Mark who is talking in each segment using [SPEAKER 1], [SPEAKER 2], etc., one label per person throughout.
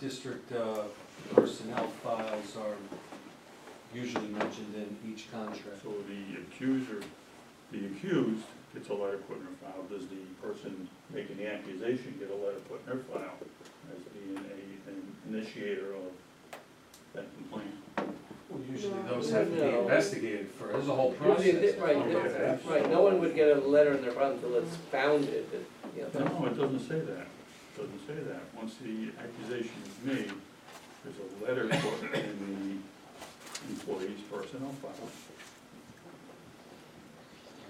[SPEAKER 1] district uh, personnel files are usually mentioned in each contract.
[SPEAKER 2] So the accuser, the accused gets a letter put in her file, does the person making the accusation get a letter put in her file as being a, an initiator of that complaint?
[SPEAKER 1] Well, Usually those have to be investigated first, there's a whole
[SPEAKER 3] Usually, it
[SPEAKER 1] process.
[SPEAKER 3] did- right, it- right, no one would get a letter in their file until it's founded, that, you know, that's-
[SPEAKER 2] No, it doesn't say that, It doesn't say that, once the accusation is made, there's a letter put in the employee's personnel file.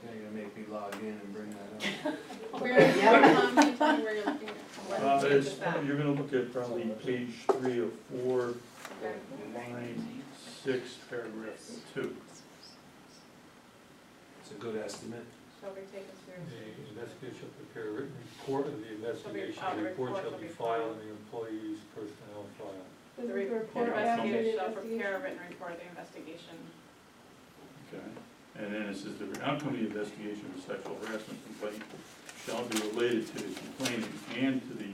[SPEAKER 1] Now you're gonna make me log in and bring that up.
[SPEAKER 4] Where, um, can you tell me where you're looking at?
[SPEAKER 2] Uh, it's, you're gonna look at probably page three or four,
[SPEAKER 4] Okay.
[SPEAKER 2] line six, paragraph two.
[SPEAKER 1] It's a good estimate.
[SPEAKER 4] Shall we take us through?
[SPEAKER 5] The investigator shall prepare a written report of the investigation,
[SPEAKER 4] oh,
[SPEAKER 5] the report
[SPEAKER 4] report
[SPEAKER 5] shall
[SPEAKER 4] shall
[SPEAKER 5] be
[SPEAKER 4] be
[SPEAKER 5] filed in the employee's personnel file.
[SPEAKER 4] The report investigator shall prepare a written report of the investigation.
[SPEAKER 2] Okay, and then it says the outcome of the investigation of a sexual harassment complaint shall be related to the complainant and to the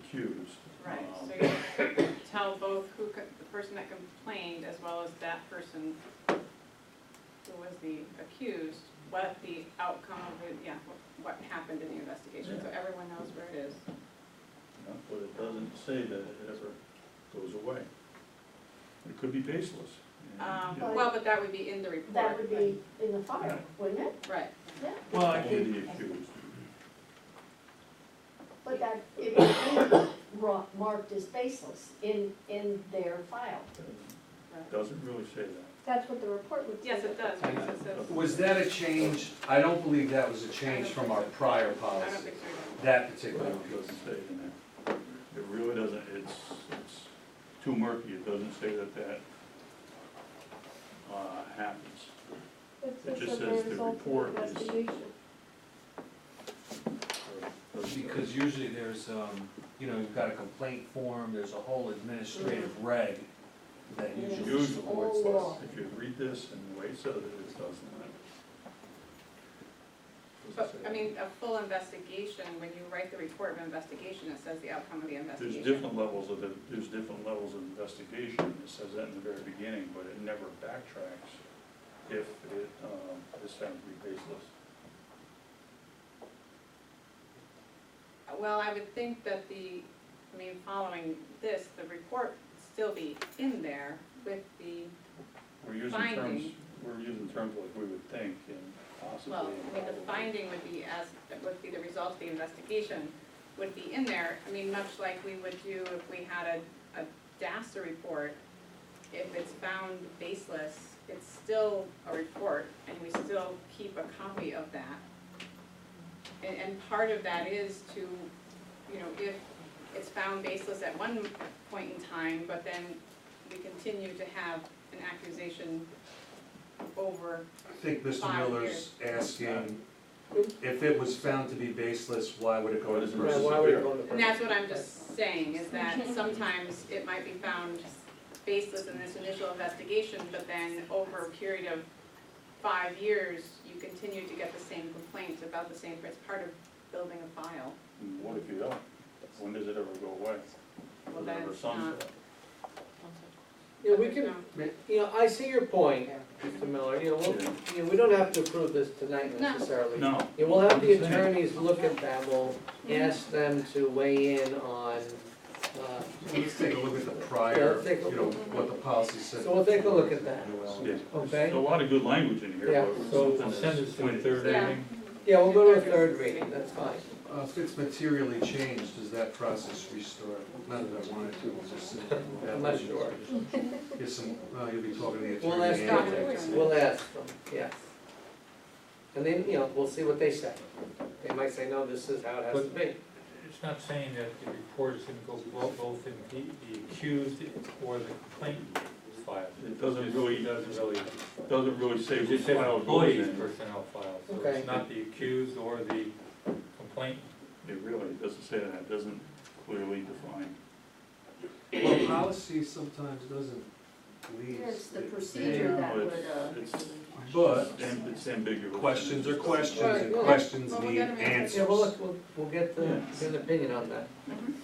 [SPEAKER 2] accused.
[SPEAKER 4] Right,
[SPEAKER 2] Um,
[SPEAKER 4] so you tell both who, co- the person that complained as well as that person who was the accused, what the outcome of it, yeah, what- what happened in the investigation, so everyone knows where it is.
[SPEAKER 2] yeah, But it doesn't say that it ever goes away. It could be baseless. and,
[SPEAKER 4] Um,
[SPEAKER 2] you know,
[SPEAKER 4] well, but that would be in the report.
[SPEAKER 6] That would be in the file, wouldn't it?
[SPEAKER 4] Right,
[SPEAKER 1] Well,
[SPEAKER 2] Only the accused.
[SPEAKER 6] But that, it would be ro- marked as baseless in, in their file.
[SPEAKER 4] right.
[SPEAKER 2] Doesn't really say that.
[SPEAKER 6] That's what the report would
[SPEAKER 4] Yes, it does, because it says.
[SPEAKER 1] Was that a change? I don't believe that was a change from our prior
[SPEAKER 4] I don't
[SPEAKER 1] policy,
[SPEAKER 4] think so.
[SPEAKER 1] that particular one.
[SPEAKER 2] It doesn't say it in there. It really doesn't, it's, it's too murky, it doesn't say that that, uh, happens. It just says the report is.
[SPEAKER 1] Because usually there's, um, you know, you've got a complaint form, there's a whole administrative reg that usually
[SPEAKER 2] Usually.
[SPEAKER 1] supports
[SPEAKER 6] Oh,
[SPEAKER 1] this.
[SPEAKER 6] law.
[SPEAKER 2] If you read this and the way it says it, it doesn't.
[SPEAKER 4] But, I mean, a full investigation, when you write the report of investigation, it says the outcome of the
[SPEAKER 2] There's
[SPEAKER 4] investigation.
[SPEAKER 2] different levels of, the- there's different levels of investigation, it says that in the very beginning, but it never backtracks if it, um, is found to be baseless.
[SPEAKER 4] Well, I would think that the, I mean, following this, the report still be in there with the,
[SPEAKER 2] We're using terms,
[SPEAKER 4] Finding.
[SPEAKER 2] we're using terms like we would think and possibly.
[SPEAKER 4] well, I mean, the finding would be as, would be the result of the investigation would be in there. I mean, much like we would do if we had a, a DASA report, if it's found baseless, it's still a report, and we still keep a copy of that. And, and part of that is to, you know, if it's found baseless at one point in time, but then we continue to have an accusation over,
[SPEAKER 1] I think Mr.
[SPEAKER 4] Five
[SPEAKER 1] Miller's asking, if it was found to be baseless, why would it go to the
[SPEAKER 2] Right,
[SPEAKER 1] person?
[SPEAKER 3] why would it go to the
[SPEAKER 4] and that's what I'm just saying, is that sometimes it might be found baseless in this initial investigation, but then over a period of five years, you continue to get the same complaints about the same, it's part of building a file.
[SPEAKER 2] And What if you don't? When does it ever go away?
[SPEAKER 4] Well,
[SPEAKER 2] Does it ever
[SPEAKER 4] that's
[SPEAKER 2] sunset?
[SPEAKER 3] You know, we can, you know, I see your point, Mr. Miller, you know, we'll, you know, we don't have to approve this tonight
[SPEAKER 4] No.
[SPEAKER 3] necessarily.
[SPEAKER 2] No,
[SPEAKER 3] You will have the
[SPEAKER 2] Understand.
[SPEAKER 3] attorneys look at that, we'll ask them to weigh in on, uh,
[SPEAKER 1] Let's take a look at the prior,
[SPEAKER 3] Yeah, take a-
[SPEAKER 1] you know, what the policy said.
[SPEAKER 3] So we'll take a look at that.
[SPEAKER 2] yeah.
[SPEAKER 3] okay?
[SPEAKER 2] A lot of good language in here,
[SPEAKER 3] Yeah.
[SPEAKER 2] but.
[SPEAKER 5] So
[SPEAKER 2] something
[SPEAKER 5] send
[SPEAKER 2] that's
[SPEAKER 5] it to the
[SPEAKER 2] pointed-
[SPEAKER 5] third
[SPEAKER 4] Yeah.
[SPEAKER 5] reading.
[SPEAKER 3] Yeah, we'll go to a third reading, that's fine.
[SPEAKER 1] Uh, If it's materially changed, does that process restore? Not that I wanted to, it's just.
[SPEAKER 3] I'm not sure.
[SPEAKER 1] Here's some, well, you'll be talking to the attorney.
[SPEAKER 3] We'll ask
[SPEAKER 1] and-
[SPEAKER 4] Doctor.
[SPEAKER 3] We'll ask them, yes. And then, you know, we'll see what they say. They might say, no, this is how it has to be.
[SPEAKER 5] It's not saying that the report is gonna go bo- both in the, the accused or the complainant file.
[SPEAKER 2] It doesn't really,
[SPEAKER 5] Doesn't really,
[SPEAKER 2] doesn't really say
[SPEAKER 5] it
[SPEAKER 2] which
[SPEAKER 5] just says
[SPEAKER 2] file it
[SPEAKER 5] employee's
[SPEAKER 2] goes in.
[SPEAKER 5] personnel file, so
[SPEAKER 3] Okay.
[SPEAKER 5] it's not the accused or the complainant.
[SPEAKER 2] It really doesn't say that, it doesn't clearly define.
[SPEAKER 1] Well, policy sometimes doesn't leave.
[SPEAKER 6] It's the procedure that
[SPEAKER 2] Yeah.
[SPEAKER 6] would, uh,
[SPEAKER 2] It's-
[SPEAKER 1] But
[SPEAKER 2] It's am- It's ambiguous.
[SPEAKER 1] questions are questions,
[SPEAKER 3] Right,
[SPEAKER 1] and
[SPEAKER 3] well-
[SPEAKER 1] questions
[SPEAKER 4] well, we
[SPEAKER 1] need
[SPEAKER 4] gotta make-
[SPEAKER 3] Yeah,
[SPEAKER 1] answers.
[SPEAKER 3] we'll, look- we'll, we'll get the, get an opinion on that.
[SPEAKER 4] Mhm.